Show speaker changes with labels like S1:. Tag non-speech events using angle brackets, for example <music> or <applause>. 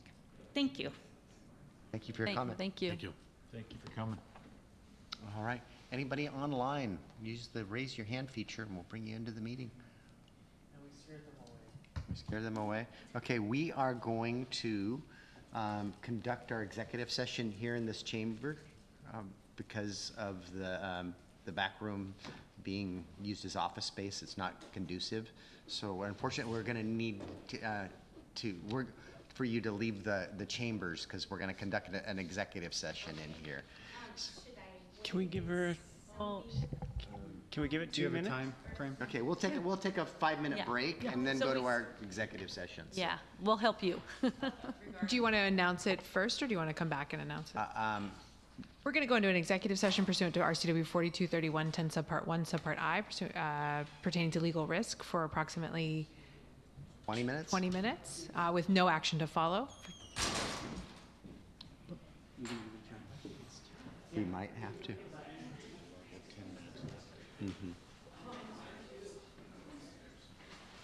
S1: Thank you.
S2: Thank you for your
S3: Thank-
S2: comment.
S3: Thank you.
S4: Thank you.
S5: Thank you for coming.
S2: All right. Anybody online, use the raise your hand feature and we'll bring you into the meeting. We scared them away. Okay, we are going to um, conduct our executive session here in this chamber um, because of the, um, the back room being used as office space. It's not conducive. So unfortunately, we're going to need to, uh, to, we're, for you to leave the, the chambers because we're going to conduct an- an executive session in here.
S6: Can we give her, can we give it two minutes?
S5: frame?
S2: Okay, we'll take, a- we'll take a five-minute
S1: Yeah.
S2: break and then
S1: So
S2: go to
S1: we-
S2: our executive sessions.
S1: Yeah, we'll help you. <laughs>
S7: Do you want to announce it first, or do you want to come back and announce it?
S2: Um,
S7: We're going to go into an executive session pursuant to RCW 423110 subpart 1, subpart I, pursu- uh, pertaining to legal risk for approximately
S2: 20 minutes?
S7: 20 minutes, uh, with no action to follow.
S2: We might have to.